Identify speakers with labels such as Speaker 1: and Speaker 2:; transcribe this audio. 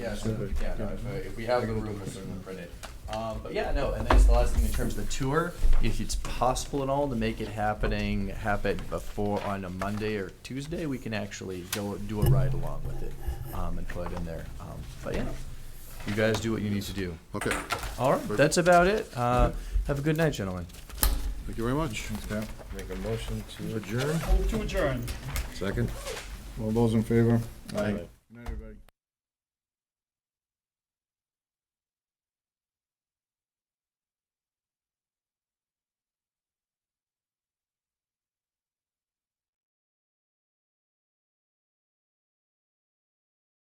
Speaker 1: Yeah, so,
Speaker 2: Super.
Speaker 1: yeah, no, if, uh, if we have the room, we'll certainly print it. Um, but yeah, no, and that's the last thing in terms of the tour, if it's possible at all to make it happening, happen before, on a Monday or Tuesday, we can actually go, do a ride along with it, um, and put it in there. Um, But yeah, you guys do what you need to do.
Speaker 3: Okay,
Speaker 1: All right, that's about it. Uh, have a good night, gentlemen.
Speaker 3: thank you very much.
Speaker 2: Make a motion to adjourn,
Speaker 4: Move to adjourn.
Speaker 3: Second?
Speaker 2: all those in favor?
Speaker 3: Aye.